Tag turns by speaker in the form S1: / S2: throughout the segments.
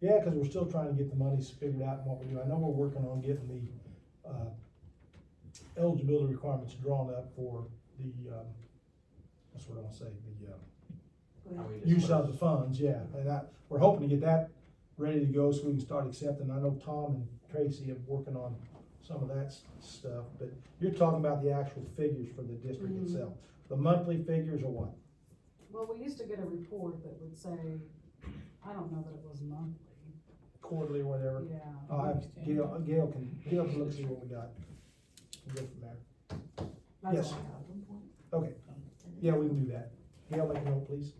S1: Yeah, because we're still trying to get the money figured out and what we do. I know we're working on getting the, uh, eligibility requirements drawn up for the, um, that's what I want to say, the, uh,
S2: How we
S1: use
S2: disperse.
S1: of the funds, yeah. And I, we're hoping to get that ready to go so we can start accepting. I know Tom and Tracy have working on some of that s- stuff, but you're talking about the actual figures for the district
S3: Mhm.
S1: itself. The monthly figures or what?
S3: Well, we used to get a report that would say, I don't know that it was monthly,
S1: Quarterly or whatever?
S3: yeah.
S1: I, Gail, Gail can, Gail can look see what we got. We'll Go from there.
S3: That's
S1: Yes.
S3: all I have.
S1: Okay, yeah, we can do that. Gail, make a note, please.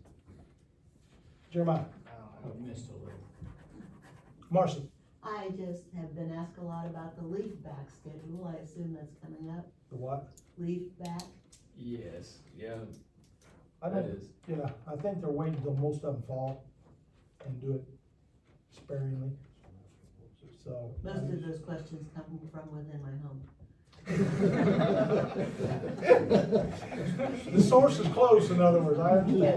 S1: Jeremiah,
S2: I don't know, I missed a little.
S1: Marcy,
S4: I just have been asked a lot about the leaf back schedule, I assume that's coming up,
S1: the what?
S4: leaf back,
S5: Yes, yeah,
S1: I
S5: that
S1: don't,
S5: is.
S1: yeah, I think they're waiting till most of them fall and do it sparingly, so.
S4: most of those questions come from within my home.
S1: The source is close, in other words, I understand.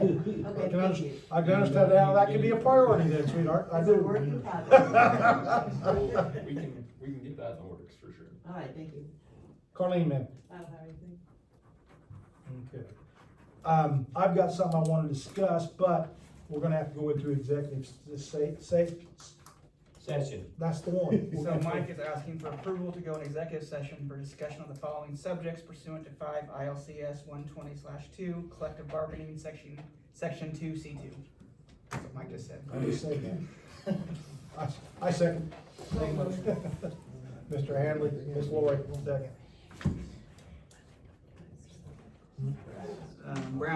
S1: I
S4: Okay,
S1: can
S4: thank
S1: understand,
S4: you.
S1: I can understand how that could be a priority then, sweetheart, I
S4: It's a
S1: do.
S4: work in progress.
S5: We can, we can get that in the works for sure.
S4: All right, thank you.
S1: Carleen, ma'am.
S3: I don't have anything.
S1: Okay. Um, I've got something I wanna discuss, but we're gonna have to go into executive, s- say, say,
S2: Session.
S1: that's the one.
S6: So Mike is asking for approval to go in executive session for discussion of the following subjects pursuant to five ILCS one twenty two, collective bargaining section, section two C two. That's what Mike just said.
S1: I just said that. I, I second. Mr. Handley, Ms. Lori, second.
S6: Um, Brown